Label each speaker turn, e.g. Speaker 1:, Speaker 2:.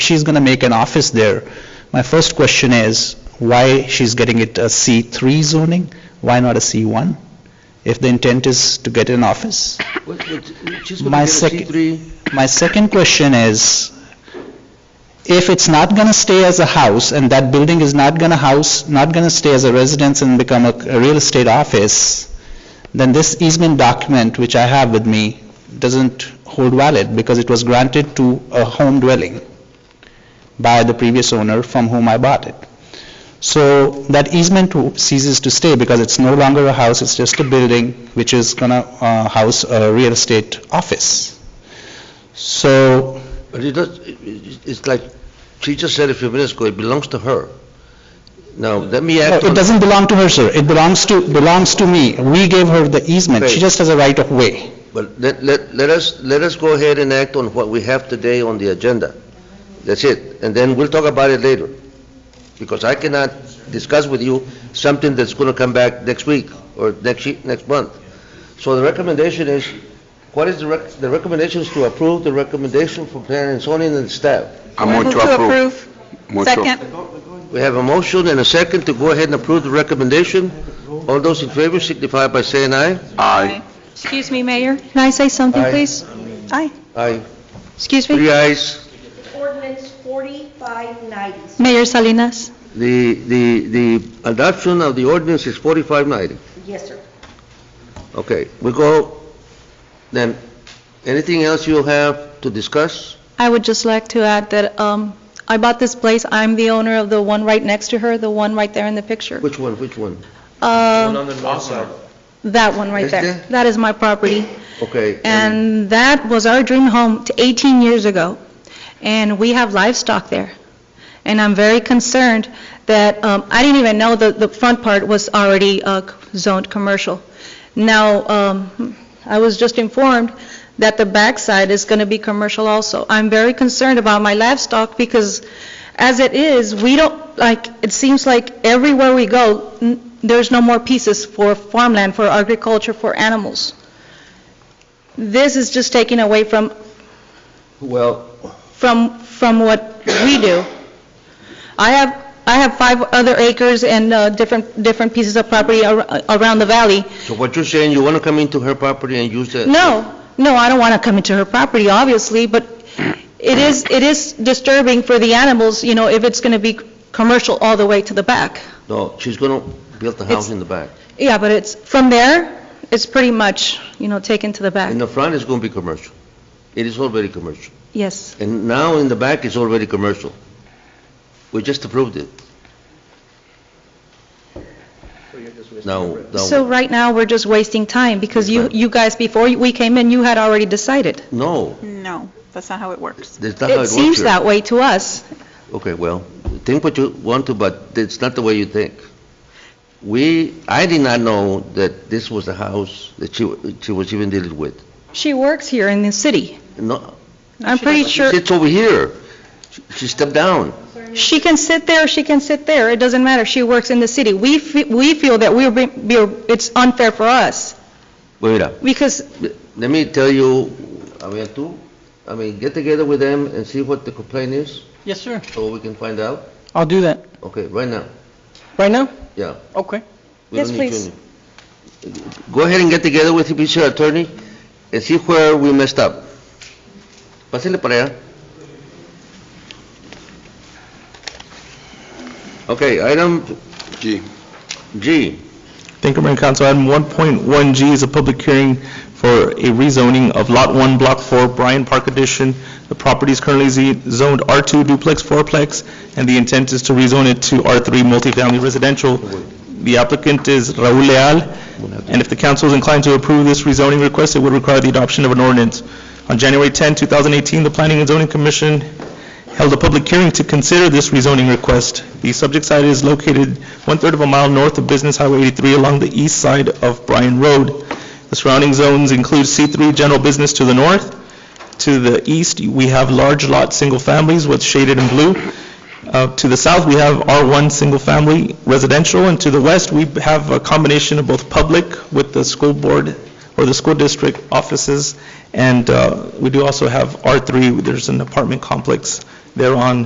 Speaker 1: she's going to make an office there. My first question is, why she's getting it a C3 zoning? Why not a C1? If the intent is to get an office?
Speaker 2: What- what- She's
Speaker 1: My
Speaker 2: going to
Speaker 1: second-
Speaker 2: get a C3.
Speaker 1: My second question is, if it's not going to stay as a house, and that building is not going to house, not going to stay as a residence and become a a real estate office, then this easement document, which I have with me, doesn't hold valid, because it was granted to a home dwelling by the previous owner from whom I bought it. So that easement ceases to stay, because it's no longer a house, it's just a building which is going to house a real estate office. So,
Speaker 2: But it does, it- it- it's like, she just said a few minutes ago, it belongs to her. Now, let me
Speaker 1: no,
Speaker 2: act
Speaker 1: it
Speaker 2: on...
Speaker 1: doesn't belong to her, sir. It belongs to, belongs to me. We gave her the easement. She
Speaker 2: Right.
Speaker 1: just has a right of way.
Speaker 2: But let, let, let us, let us go ahead and act on what we have today on the agenda. That's it. And then we'll talk about it later. Because I cannot discuss with you something that's going to come back next week or next, ye- next month. So the recommendation is, what is the rec, the recommendation is to approve the recommendation from planning and zoning and staff.
Speaker 3: I move to approve. Move to-
Speaker 4: Second.
Speaker 2: We have a motion and a second to go ahead and approve the recommendation. All those in favor signify by saying aye.
Speaker 3: Aye.
Speaker 4: Excuse me, Mayor, can I say something,
Speaker 2: Aye.
Speaker 4: please? Aye.
Speaker 2: Aye.
Speaker 4: Excuse me?
Speaker 2: Three ayes.
Speaker 5: Ordinance 4590.
Speaker 4: Mayor Salinas,
Speaker 2: The, the, the adoption of the ordinance is 4590.
Speaker 5: Yes, sir.
Speaker 2: Okay, we go, then, anything else you have to discuss?
Speaker 4: I would just like to add that um, I bought this place, I'm the owner of the one right next to her, the one right there in the picture.
Speaker 2: Which one, which one?
Speaker 4: Um, That one right
Speaker 2: Is
Speaker 4: there.
Speaker 2: there?
Speaker 4: That is my property.
Speaker 2: Okay.
Speaker 4: And that was our dream home t- 18 years ago, and we have livestock there. And I'm very concerned that, um, I didn't even know that the front part was already uh, zoned commercial. Now, um, I was just informed that the backside is going to be commercial also. I'm very concerned about my livestock because as it is, we don't, like, it seems like everywhere we go, n- there's no more pieces for farmland, for agriculture, for animals. This is just taking away from,
Speaker 2: Well,
Speaker 4: from, from what we do. I have, I have five other acres and uh, different, different pieces of property ar- around the valley.
Speaker 2: so what you're saying, you want to come into her property and use that?
Speaker 4: No, no, I don't want to come into her property, obviously, but it is, it is disturbing for the animals, you know, if it's going to be commercial all the way to the back.
Speaker 2: No, she's going to build the house
Speaker 4: It's-
Speaker 2: in the back.
Speaker 4: Yeah, but it's, from there, it's pretty much, you know, taken to the back.
Speaker 2: In the front, it's going to be commercial. It is already commercial.
Speaker 4: Yes.
Speaker 2: And now in the back, it's already commercial. We just approved it. Now,
Speaker 4: So
Speaker 2: now,
Speaker 4: right now, we're just wasting time because you, you guys, before we came in, you had already decided.
Speaker 2: no,
Speaker 6: No, that's not how it works.
Speaker 2: that's not how it
Speaker 4: It
Speaker 2: works
Speaker 4: seems
Speaker 2: here.
Speaker 4: that way to us.
Speaker 2: Okay, well, think what you want to, but it's not the way you think. We, I did not know that this was the house that she, she was even dealing with.
Speaker 4: She works here in the city.
Speaker 2: No,
Speaker 4: I'm pretty sure,
Speaker 2: it's over here. She- She stepped down.
Speaker 4: she can sit there, she can sit there, it doesn't matter, she works in the city. We, fe- we feel that we're, be- we're- it's unfair for us,
Speaker 2: Wait up.
Speaker 4: because,
Speaker 2: Let me tell you, I mean, tú, I mean, get together with them and see what the complaint is,
Speaker 7: Yes, sir.
Speaker 2: so we can find out.
Speaker 7: I'll do that.
Speaker 2: Okay, right now,
Speaker 7: Right now?
Speaker 2: yeah.
Speaker 7: Okay.
Speaker 2: We don't
Speaker 4: Yes,
Speaker 2: need
Speaker 4: please.
Speaker 2: you. Go ahead and get together with the PC attorney and see where we messed up. Pásale para allá. Okay, item
Speaker 3: G.
Speaker 2: G.
Speaker 8: Thank you, Mayor and Council. Item 1.1G is a public hearing for a rezoning of Lot 1, Block 4, Bryan Park Addition. The property is currently ze- zoned R2 duplex fourplex, and the intent is to rezone it to R3 multifamily residential. The applicant is Raul Leal, and if the council is inclined to approve this rezoning request, it would require the adoption of an ordinance. On January 10, 2018, the Planning and Zoning Commission held a public hearing to consider this rezoning request. The subject site is located one-third of a mile north of Business Highway 83 along the east side of Bryan Road. The surrounding zones include C3 General Business to the north. To the east, we have large lot, single families with shaded in blue. Uh, To the south, we have R1 Single Family Residential, and to the west, we have a combination of both public with the school board or the school district offices, and uh, we do also have R3, there's an apartment complex thereon